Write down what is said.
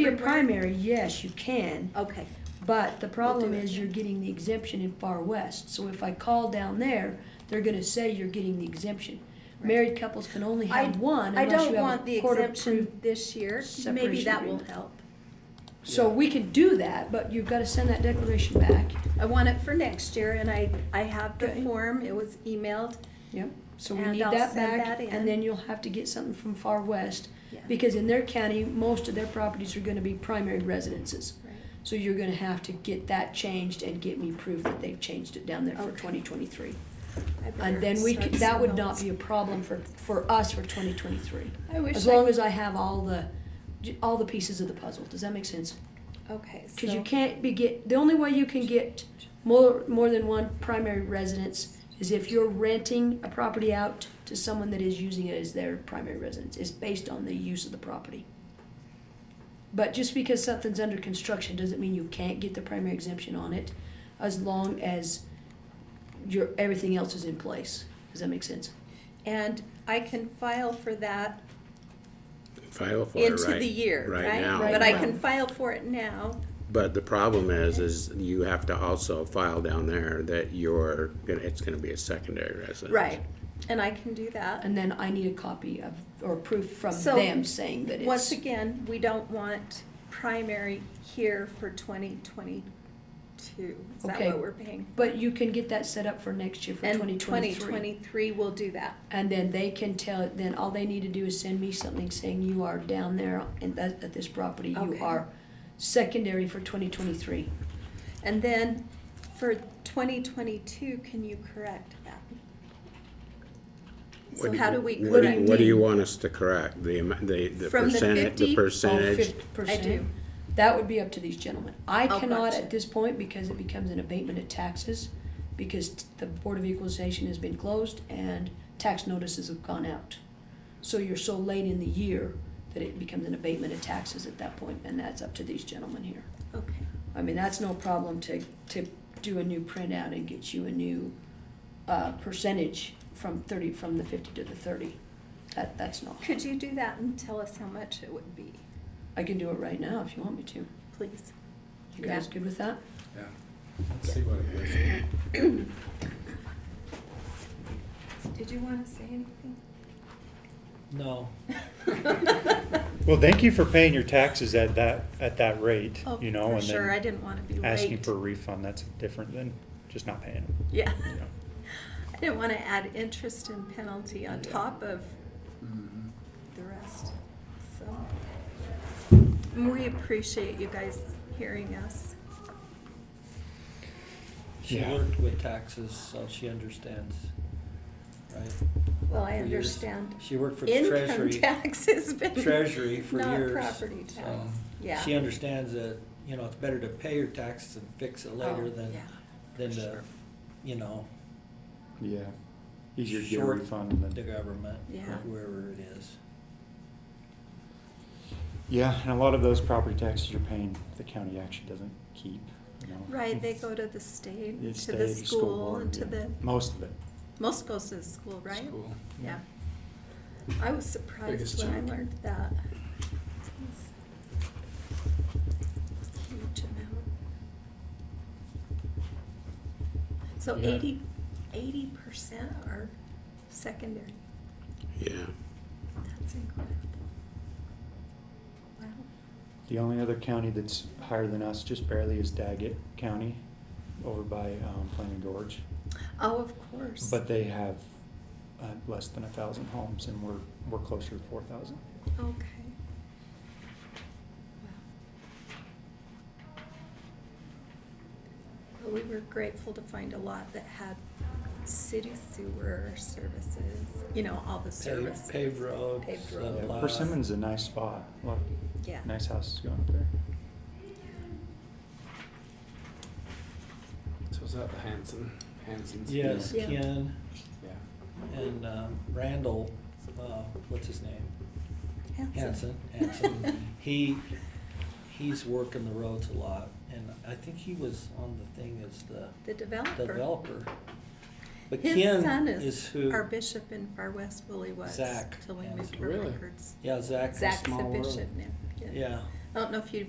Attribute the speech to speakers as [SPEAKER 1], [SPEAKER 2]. [SPEAKER 1] your
[SPEAKER 2] everywhere?
[SPEAKER 1] primary, yes, you can,
[SPEAKER 2] Okay,
[SPEAKER 1] but the problem
[SPEAKER 2] do it.
[SPEAKER 1] is you're getting the exemption in Far West. So if I call down there, they're gonna say you're getting the exemption.
[SPEAKER 2] Right.
[SPEAKER 1] Married couples can only have one
[SPEAKER 2] I
[SPEAKER 1] unless
[SPEAKER 2] don't
[SPEAKER 1] you have
[SPEAKER 2] want the
[SPEAKER 1] a court approved.
[SPEAKER 2] exemption this year, maybe
[SPEAKER 1] separation
[SPEAKER 2] that will
[SPEAKER 1] agreement.
[SPEAKER 2] help.
[SPEAKER 1] So we can do that, but you've gotta send that declaration back.
[SPEAKER 2] I want it for next year, and I, I have the
[SPEAKER 1] Okay.
[SPEAKER 2] form, it was emailed,
[SPEAKER 1] Yep, so we
[SPEAKER 2] And
[SPEAKER 1] need
[SPEAKER 2] I'll
[SPEAKER 1] that
[SPEAKER 2] send
[SPEAKER 1] back,
[SPEAKER 2] that in.
[SPEAKER 1] and then you'll have to get something from Far West,
[SPEAKER 2] Yeah.
[SPEAKER 1] because in their county, most of their properties are gonna be primary residences.
[SPEAKER 2] Right.
[SPEAKER 1] So you're gonna have to get that changed and get me proof that they've changed it down there for
[SPEAKER 2] Okay.
[SPEAKER 1] twenty twenty-three.
[SPEAKER 2] I better
[SPEAKER 1] And then we,
[SPEAKER 2] start
[SPEAKER 1] could- that would
[SPEAKER 2] somewhere
[SPEAKER 1] not
[SPEAKER 2] else.
[SPEAKER 1] be a problem for, for us for twenty twenty-three.
[SPEAKER 2] I wish
[SPEAKER 1] As
[SPEAKER 2] I
[SPEAKER 1] long
[SPEAKER 2] could-
[SPEAKER 1] as I have all the, all the pieces of the puzzle, does that make sense?
[SPEAKER 2] Okay,
[SPEAKER 1] Cause you
[SPEAKER 2] so,
[SPEAKER 1] can't be get, the only way you can get more, more than one primary residence is if you're renting a property out to someone that is using it as their primary residence. It's based on the use of the property. But just because something's under construction doesn't mean you can't get the primary exemption on it as long as your, everything else is in place. Does that make sense?
[SPEAKER 2] and I can file for that
[SPEAKER 3] File for it
[SPEAKER 2] into the
[SPEAKER 3] right,
[SPEAKER 2] year,
[SPEAKER 3] right now.
[SPEAKER 2] right? But I
[SPEAKER 1] Right
[SPEAKER 2] can
[SPEAKER 1] now.
[SPEAKER 2] file for it now,
[SPEAKER 3] But the problem is, is you have to also file down there that you're, gonna it's gonna be a secondary residence.
[SPEAKER 2] right, and I can do that.
[SPEAKER 1] And then I need a copy of, or proof from
[SPEAKER 2] So,
[SPEAKER 1] them saying that
[SPEAKER 2] Once
[SPEAKER 1] it's,
[SPEAKER 2] again, we don't want primary here for twenty twenty-two. Is that
[SPEAKER 1] Okay.
[SPEAKER 2] what we're paying?
[SPEAKER 1] but you can get that set up for next year for twenty
[SPEAKER 2] And twenty
[SPEAKER 1] twenty-three.
[SPEAKER 2] twenty-three will do that.
[SPEAKER 1] And then they can tell, then all they need to do is send me something saying you are down there and that, at this property, you
[SPEAKER 2] Okay.
[SPEAKER 1] are secondary for twenty twenty-three.
[SPEAKER 2] And then for twenty twenty-two, can you correct that? So
[SPEAKER 3] What
[SPEAKER 2] how
[SPEAKER 3] you-
[SPEAKER 2] do we
[SPEAKER 3] What do you,
[SPEAKER 2] correct?
[SPEAKER 3] what do you want us to correct? The, amou- the, the
[SPEAKER 2] From the
[SPEAKER 3] percentage,
[SPEAKER 2] 50? Oh,
[SPEAKER 3] the percentage?
[SPEAKER 2] I do.
[SPEAKER 1] That would be up to these gentlemen. I
[SPEAKER 2] Oh,
[SPEAKER 1] cannot
[SPEAKER 2] gotcha.
[SPEAKER 1] at this point because it becomes an abatement of taxes because t- the Board of Equalization has been closed and tax notices have gone out. So you're so late in the year that it becomes an abatement of taxes at that point, and that's up to these gentlemen here.
[SPEAKER 2] Okay,
[SPEAKER 1] I mean, that's no problem to, to do a new printout and get you a new, uh, percentage from thirty, from the fifty to the thirty. That, that's not,
[SPEAKER 2] could you do that and tell us how much it would be,
[SPEAKER 1] I can do it right now if you want me to.
[SPEAKER 2] please?
[SPEAKER 1] You guys
[SPEAKER 2] Yeah.
[SPEAKER 1] good with that?
[SPEAKER 4] Yeah, let's see what it is.
[SPEAKER 2] Did you wanna say anything?
[SPEAKER 5] No.
[SPEAKER 6] Well, thank you for paying your taxes at that, at that rate,
[SPEAKER 2] Oh,
[SPEAKER 6] you know,
[SPEAKER 2] for
[SPEAKER 6] and
[SPEAKER 2] sure, I
[SPEAKER 6] then
[SPEAKER 2] didn't wanna be late.
[SPEAKER 6] asking for a refund, that's different than just not paying them.
[SPEAKER 2] Yeah,
[SPEAKER 6] you know.
[SPEAKER 2] I didn't wanna add interest and penalty on top of
[SPEAKER 4] Mm-hmm.
[SPEAKER 2] the rest, so. And we appreciate you guys hearing us.
[SPEAKER 5] She
[SPEAKER 6] Yeah.
[SPEAKER 5] worked with taxes, so she understands, right?
[SPEAKER 2] Well, I
[SPEAKER 5] For years.
[SPEAKER 2] understand.
[SPEAKER 5] She worked for the
[SPEAKER 2] Income
[SPEAKER 5] treasury,
[SPEAKER 2] tax has been.
[SPEAKER 5] treasury for
[SPEAKER 2] Not
[SPEAKER 5] years.
[SPEAKER 2] property
[SPEAKER 5] so
[SPEAKER 2] tax, yeah.
[SPEAKER 5] She understands that, you know, it's better to pay your taxes and fix it
[SPEAKER 2] Oh,
[SPEAKER 5] later than,
[SPEAKER 2] yeah.
[SPEAKER 5] than to,
[SPEAKER 2] sure.
[SPEAKER 5] you know,
[SPEAKER 6] Yeah, easier to get a
[SPEAKER 5] Short
[SPEAKER 6] refund
[SPEAKER 5] the
[SPEAKER 6] than,
[SPEAKER 5] government,
[SPEAKER 2] Yeah.
[SPEAKER 5] or whoever it is.
[SPEAKER 6] yeah, and a lot of those property taxes you're paying, the county actually doesn't keep, you know.
[SPEAKER 2] Right, they go to the state,
[SPEAKER 6] It's
[SPEAKER 2] to the
[SPEAKER 6] state,
[SPEAKER 2] school,
[SPEAKER 6] board,
[SPEAKER 2] and to
[SPEAKER 6] yeah.
[SPEAKER 2] the,
[SPEAKER 6] Most of it.
[SPEAKER 2] most goes to the school, right?
[SPEAKER 4] School.
[SPEAKER 2] Yeah. I was surprised
[SPEAKER 4] Biggest
[SPEAKER 2] when I
[SPEAKER 4] chunk.
[SPEAKER 2] learned that. It's a Huge amount. So
[SPEAKER 5] Yeah.
[SPEAKER 2] eighty, eighty percent are secondary,
[SPEAKER 3] Yeah,
[SPEAKER 2] that's incredible. Wow,
[SPEAKER 6] The only other county that's higher than us, just barely, is Daggett County, over by, um, Flaming Gorge.
[SPEAKER 2] oh, of course,
[SPEAKER 6] But they have, uh, less than a thousand homes and we're, we're closer to four thousand.
[SPEAKER 2] okay. Wow. Well, we were grateful to find a lot that had city sewer services, you know, all the services.
[SPEAKER 5] Paved, paved roads.
[SPEAKER 2] Paved
[SPEAKER 5] uh,
[SPEAKER 2] roads.
[SPEAKER 6] Yeah,
[SPEAKER 5] lot.
[SPEAKER 6] Persimmon's a nice spot. A lot of
[SPEAKER 2] Yeah.
[SPEAKER 6] nice houses going up there.
[SPEAKER 4] So is that the Hanson, Hanson's?
[SPEAKER 5] Yes,
[SPEAKER 2] Yeah.
[SPEAKER 5] Ken
[SPEAKER 4] Yeah.
[SPEAKER 5] and um, Randall, uh, what's his name?
[SPEAKER 2] Hanson.
[SPEAKER 5] Hanson, Hanson. He, he's working the roads a lot, and I think he was on the thing as the
[SPEAKER 2] The developer.
[SPEAKER 5] developer. But
[SPEAKER 2] His son
[SPEAKER 5] Ken is
[SPEAKER 2] is
[SPEAKER 5] who,
[SPEAKER 2] our bishop in Far West, Willie was.
[SPEAKER 5] Zach
[SPEAKER 2] Till we
[SPEAKER 5] Hanson.
[SPEAKER 2] moved her
[SPEAKER 4] Really?
[SPEAKER 2] records.
[SPEAKER 5] yeah, Zach,
[SPEAKER 2] Zach's the
[SPEAKER 4] Small World.
[SPEAKER 2] bishop now.
[SPEAKER 5] yeah,
[SPEAKER 2] I don't know if you